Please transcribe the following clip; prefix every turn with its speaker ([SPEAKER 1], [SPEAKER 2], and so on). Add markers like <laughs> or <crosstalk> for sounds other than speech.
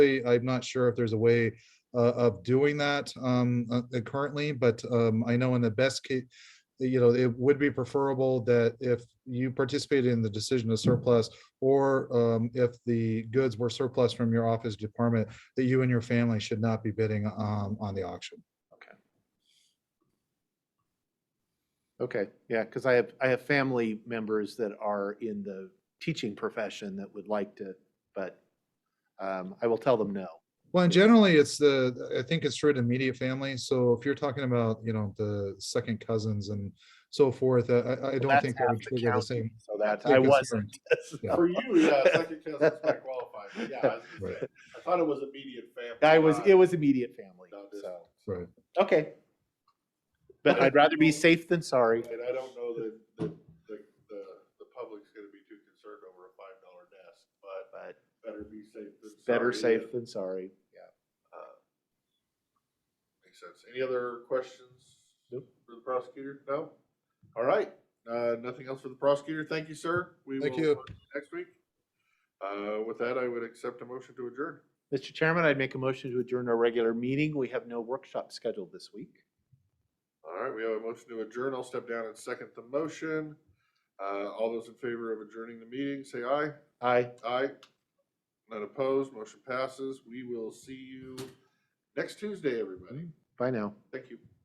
[SPEAKER 1] I'm not sure if there's a way uh, of doing that um, uh, uh, currently, but um, I know in the best case, you know, it would be preferable that if you participated in the decision of surplus or um, if the goods were surplus from your office department, that you and your family should not be bidding um, on the auction.
[SPEAKER 2] Okay, yeah, because I have, I have family members that are in the teaching profession that would like to, but um, I will tell them no.
[SPEAKER 1] Well, and generally, it's the, I think it's true to immediate family. So if you're talking about, you know, the second cousins and so forth, I- I, I don't
[SPEAKER 2] That's
[SPEAKER 1] think that
[SPEAKER 2] half
[SPEAKER 1] would
[SPEAKER 2] the
[SPEAKER 1] trigger the
[SPEAKER 2] county,
[SPEAKER 1] same.
[SPEAKER 2] So that,
[SPEAKER 1] same
[SPEAKER 2] I
[SPEAKER 1] concern.
[SPEAKER 2] <laughs> wasn't.
[SPEAKER 1] Yeah.
[SPEAKER 3] For you,
[SPEAKER 2] <laughs>
[SPEAKER 3] yeah, second cousins might qualify. but Yeah, I was gonna
[SPEAKER 1] Right.
[SPEAKER 3] say, I thought it was immediate family.
[SPEAKER 2] I was,
[SPEAKER 3] not-
[SPEAKER 2] it was immediate family,
[SPEAKER 3] not
[SPEAKER 2] so,
[SPEAKER 3] distant.
[SPEAKER 1] Right.
[SPEAKER 2] okay. But I'd rather
[SPEAKER 3] <laughs>
[SPEAKER 2] be safe than sorry.
[SPEAKER 3] And I don't know that, that, the, the, the public's gonna be too concerned over a five dollar desk, but
[SPEAKER 2] But
[SPEAKER 3] better be safe than sorry.
[SPEAKER 2] better
[SPEAKER 3] and,
[SPEAKER 2] safe than sorry, yeah.
[SPEAKER 3] uh, Makes sense. Any other questions?
[SPEAKER 2] Nope.
[SPEAKER 3] For the prosecutor? No? All right, uh, nothing else for the prosecutor. Thank you, sir. We
[SPEAKER 1] Thank
[SPEAKER 3] will
[SPEAKER 1] you.
[SPEAKER 3] talk to you Next week. Uh, with that, I would accept a motion to adjourn.
[SPEAKER 2] Mr. Chairman, I'd make a motion to adjourn our regular meeting. We have no workshop scheduled this week.
[SPEAKER 3] All right, we have a motion to adjourn. I'll step down and second the motion. Uh, all those in favor of adjourning the meeting, say aye.
[SPEAKER 2] Aye.
[SPEAKER 3] Aye. None opposed, motion passes. We will see you next Tuesday, everybody.
[SPEAKER 2] Bye now.
[SPEAKER 3] Thank you.